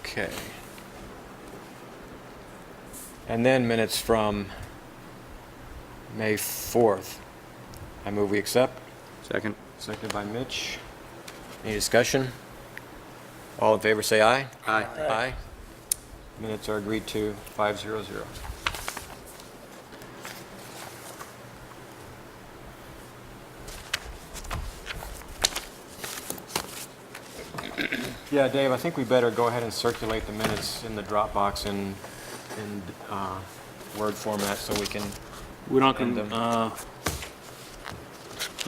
Okay. And then minutes from May 4th. I move we accept. Second. Seconded by Mitch. Any discussion? All in favor, say aye. Aye. Aye. Minutes are agreed to, five zero zero. Yeah, Dave, I think we better go ahead and circulate the minutes in the Dropbox in, in uh, Word format so we can, We're not And, gonna, uh,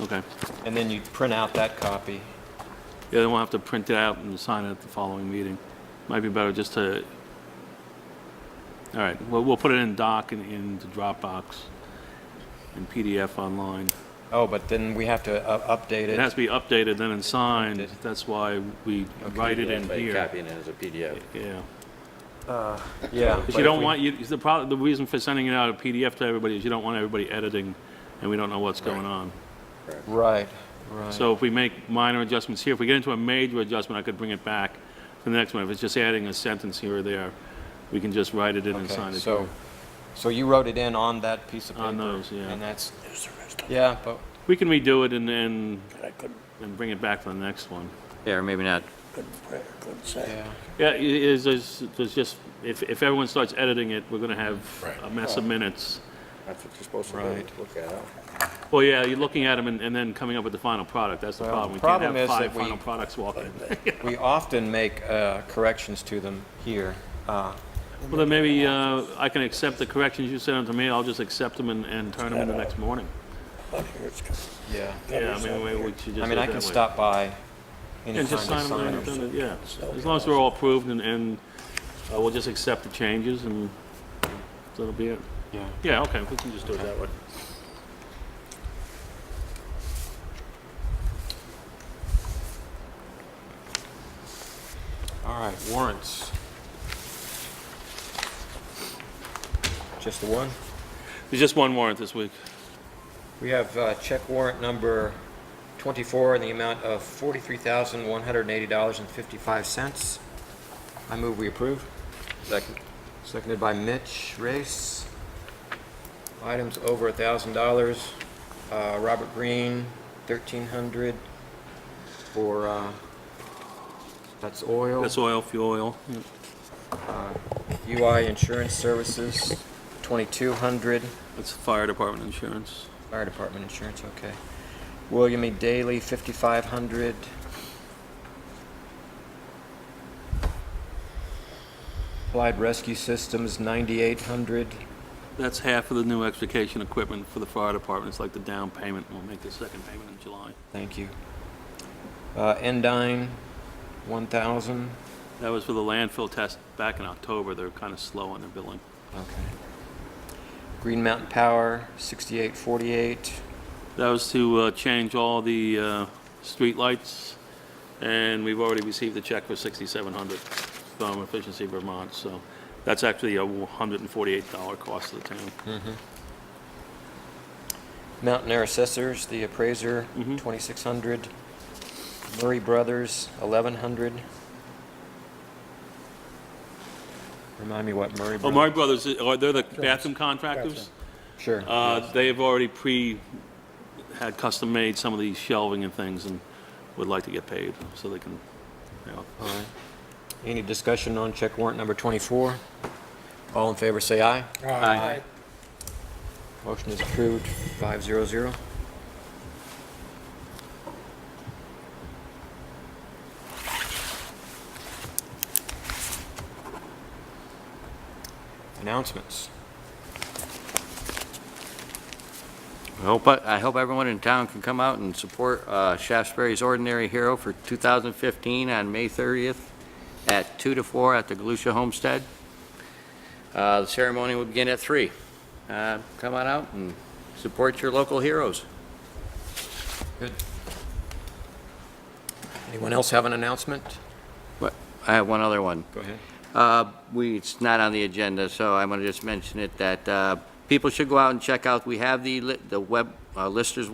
okay. and then you print out that copy. Yeah, then we'll have to print it out and sign it at the following meeting. Might be better just to, all right, we'll, we'll put it in doc and in the Dropbox and PDF online. Oh, but then we have to uh, update It has to be updated then and signed, that's why we write it in By here. Copying it as a PDF. Yeah. Yeah. Because you don't want, you, the problem, the reason for sending it out a PDF to everybody is you don't want everybody editing and we don't know what's going on. Right, right. So if we make minor adjustments here, if we get into a major adjustment, I could bring it back to the next one. If it's just adding a sentence here or there, we can just write it in and sign Okay, it. so, so you wrote it in on that piece of paper? On those, yeah. And that's, yeah, but, We can redo it and then, and bring it back for the next one. Yeah, or maybe not. yeah, Yeah, i- is, is, there's just, if, if everyone starts editing it, we're gonna have a mess of minutes. That's what you're supposed to do, Right. look at it. Well, yeah, you're looking at them and, and then coming up with the final product, that's the Well, problem. the We can't problem have is five that we- final products walking. we often make uh, corrections to them here. Uh, Well, then maybe, uh, I can accept the corrections you sent them to me, I'll just accept them and, and turn them in the next morning. Yeah, Yeah, I mean, we we should just I do mean, it I that can way. stop by anytime And to just sign them, sign and them. done it, yeah. As long as they're all approved and, and uh, we'll just accept the changes and that'll be it. Yeah. Yeah, okay, we can just do it that way. All right, warrants. Just the one? There's just one warrant this week. We have uh, check warrant number 24 in the amount of $43,180.55. I move we approve. Second. Seconded by Mitch Race. Items over $1,000. Uh, Robert Green, 1,300 for, uh, that's oil. That's oil, fuel oil. UI Insurance Services, 2,200. That's fire department insurance. Fire department insurance, okay. William E. Daley, fifty-five hundred. Applied Rescue Systems, ninety-eight hundred. That's half of the new extrication equipment for the fire department. It's like the down payment. We'll make the second payment in July. Thank you. Uh, Endine, one thousand. That was for the landfill test back in October. They're kind of slow on their billing. Okay. Green Mountain Power, sixty-eight forty-eight. That was to uh, change all the uh, streetlights, and we've already received a check for 6,700 from Efficiency Vermont, so that's actually a $148 cost to the town. Mm-hmm. Mountain Air Assessors, the appraiser, Mhm. twenty-six hundred. Murray Brothers, eleven hundred. Remind me what Murray Oh, Brothers. Murray Brothers, uh, are they the bathroom contractors? Sure. Uh, They have already pre, had custom-made some of the shelving and things, and would like to get paid, so they can, you know. All right. Any discussion on check warrant number twenty-four? All in favor, say aye. Aye. Motion is approved, five zero zero. Announcements. I hope, uh, I hope everyone in town can come out and support uh, Shaftesbury's Ordinary Hero for 2015 on May 30th at 2 to 4 at the Galusha Homestead. Uh, The ceremony will begin at 3. Uh, Come on out and support your local heroes. Good. Anyone else have an announcement? What- I have one other one. Go ahead. Uh, We, it's not on the agenda, so I'm going to just mention it, that uh, people should go out and check out, we have the, li- the web, uh, Listers